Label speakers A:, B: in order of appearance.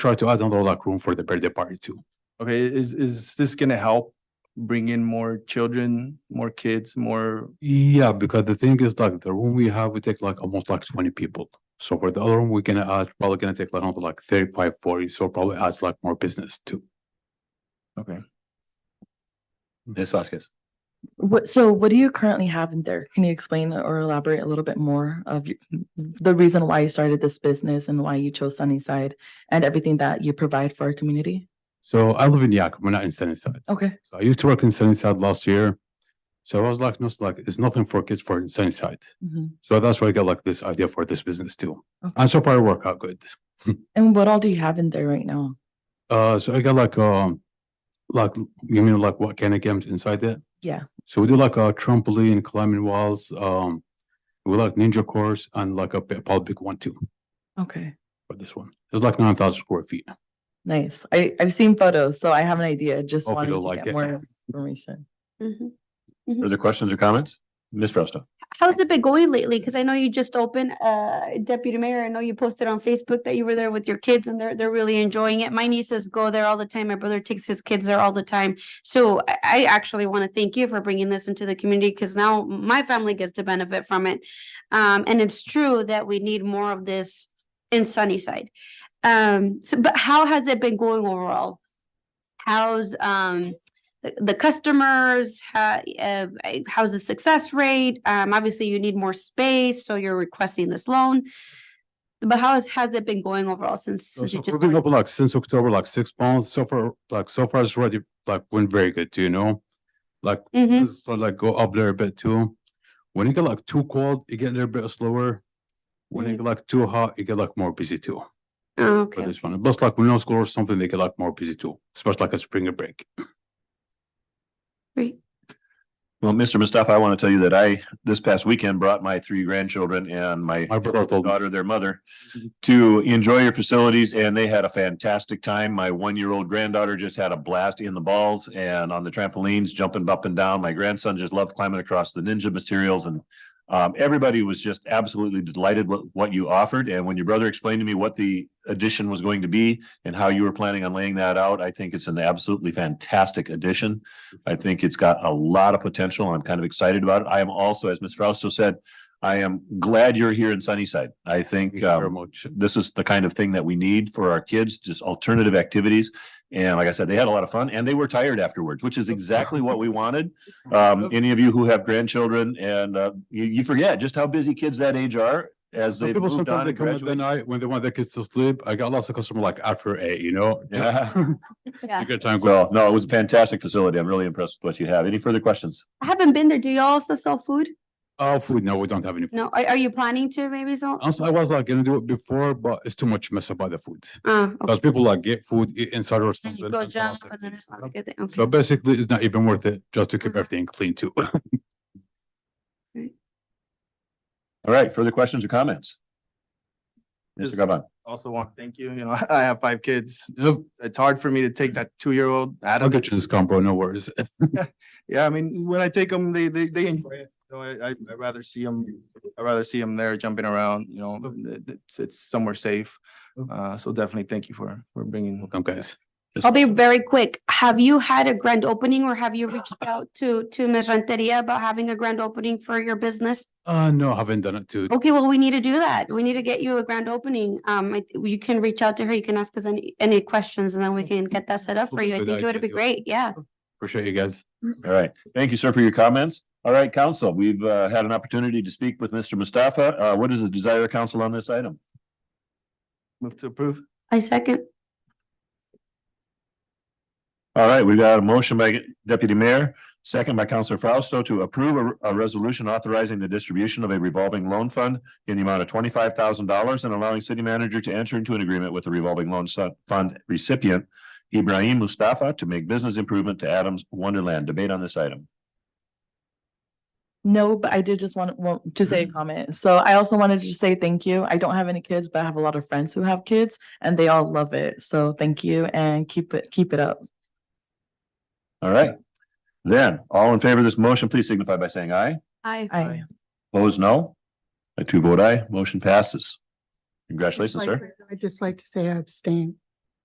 A: try to add another locker room for the birthday party too.
B: Okay, is, is this gonna help bring in more children, more kids, more,
A: Yeah, because the thing is like the room we have, we take like almost like twenty people. So for the other room, we're gonna add, probably gonna take like another like 35, 40. so probably adds like more business too.
B: okay?
C: Ms. Vasquez.
D: What, so what do you currently have in there? Can you explain or elaborate a little bit more of y- the reason why you started this business and why you chose Sunnyside and everything that you provide for our community?
A: So I live in Yakima, not in Sunnyside.
D: Okay,
A: So I used to work in Sunnyside last year. So I was like, no, it's like, it's nothing for kids for in Sunnyside.
D: mhm.
A: So that's where I got like this idea for this business too.
D: Okay.
A: And so far it worked out good.
D: And what all do you have in there right now?
A: Uh, so I got like, um, like, you mean like what kind of games inside it?
D: Yeah.
A: So we do like a trampoline, climbing walls, um, we like ninja course and like a p- public one too
D: Okay,
A: for this one. It's like nine thousand square feet.
D: nice. I, I've seen photos, so I have an idea. Just
A: Hope you
D: wanted
A: don't
D: to
A: like
D: get
A: it.
D: more information.
E: Mhm.
C: Further questions or comments? Ms. Fresno.
E: How's it been going lately? Because I know you just opened, uh, Deputy Mayor, I know you posted on Facebook that you were there with your kids and they're, they're really enjoying it. My nieces go there all the time. My brother takes his kids there all the time. So I, I actually want to thank you for bringing this into the community because now my family gets to benefit from it. Um, and it's true that we need more of this in Sunnyside. Um, so, but how has it been going overall? How's, um, the- the customers, ha- uh, I- how's the success rate? Um, obviously you need more space, so you're requesting this loan. But how has, has it been going overall since?
A: So
E: since you
A: so
E: just
A: we've been
E: started?
A: open like since October, like six months. So far, like so far it's already like went very good, you know? Like
E: Mhm.
A: business start like go up there a bit too. When it get like too cold, it get a little bit slower. When it get like too hot, it get like more busy too.
E: Oh,
A: For
E: Okay,
A: this one, plus like when no school or something, they get like more busy too, especially like a spring break.
E: great.
C: Well, Mr. Mustafa, I want to tell you that I, this past weekend, brought my three grandchildren and my
A: My brother told me,
C: daughter, their mother, to enjoy your facilities and they had a fantastic time. My one-year-old granddaughter just had a blast in the balls and on the trampolines, jumping up and down. My grandson just loved climbing across the ninja materials and um, everybody was just absolutely delighted with what you offered. And when your brother explained to me what the addition was going to be and how you were planning on laying that out, I think it's an absolutely fantastic addition. I think it's got a lot of potential. I'm kind of excited about it. I am also, as Ms. Fausto said, I am glad you're here in Sunnyside. I
A: thank you
C: think
A: very
C: um,
A: much.
C: this is the kind of thing that we need for our kids, just alternative activities. And like I said, they had a lot of fun and they were tired afterwards, which is exactly what we wanted. Um, any of you who have grandchildren and uh, you, you forget just how busy kids that age are as
A: Some
C: they've
A: people
C: moved
A: sometimes
C: on
A: they
C: and
A: come uh, at the
C: graduated.
A: night when they want their kids to sleep. I got lots of customer like after eight, you know?
C: Yeah.
E: Yeah.
A: Good time.
C: So no, it was a fantastic facility. I'm really impressed with what you have. Any further questions?
E: I haven't been there. Do you also sell food?
A: Oh, food, no, we don't have any food.
E: No, are, are you planning to maybe sell?
A: Also, I was like gonna do it before, but it's too much mess about the food.
E: Oh, okay.
A: Because people like get food, eat inside or
E: Then
A: something.
E: you go
A: and so I was
E: jump
A: like,
E: and then it's not a
A: "Nope."
E: good thing. Okay.
A: So basically, it's not even worth it just to keep
E: Mhm.
A: everything clean too.
C: All right, further questions or comments? Mr.
B: Just-
C: Gabon,
B: Also want, thank you, you know, I have five kids.
A: Yep,
B: It's hard for me to take that two-year-old out
A: I'll
B: of it.
A: get you this combo, no worries.
B: Yeah, I mean, when I take them, they, they, they enjoy it. You know, I, I I'd rather see them, I'd rather see them there jumping around, you know, it- it's, it's somewhere safe. Uh, so definitely thank you for, for bringing.
A: Welcome, guys.
E: I'll be very quick. Have you had a grand opening or have you reached out to, to Ms. Renteria about having a grand opening for your business?
A: Uh, no, I haven't done it too.
E: Okay, well, we need to do that. We need to get you a grand opening. Um, I- you can reach out to her. You can ask us any, any questions and then we can get that set up for you. I
A: Good
E: think it would
A: idea,
E: be
A: too.
E: great. Yeah.
A: Appreciate you guys.
C: all right. Thank you, sir, for your comments. All right, council, we've uh, had an opportunity to speak with Mr. Mustafa. Uh, What is the desire of council on this item?
B: Move to approve.
E: I second.
C: All right, we got a motion by Deputy Mayor, second by Councilor Fausto to approve a, a resolution authorizing the distribution of a revolving loan fund in the amount of twenty-five thousand dollars and allowing city manager to enter into an agreement with the revolving loan su- fund recipient Ibrahim Mustafa to make business improvement to Adams Wonderland. Debate on this item.
D: No, but I did just want, want to say a comment. So I also wanted to just say thank you. I don't have any kids, but I have a lot of friends who have kids and they all love it. So thank you and keep it, keep it up.
C: All right. Then, all in favor of this motion, please signify by saying aye.
E: Aye.
D: I,
C: Opposed, no. I two vote aye, motion passes. Congratulations,
F: Just like
C: sir.
F: to- I'd just like to say I abstain.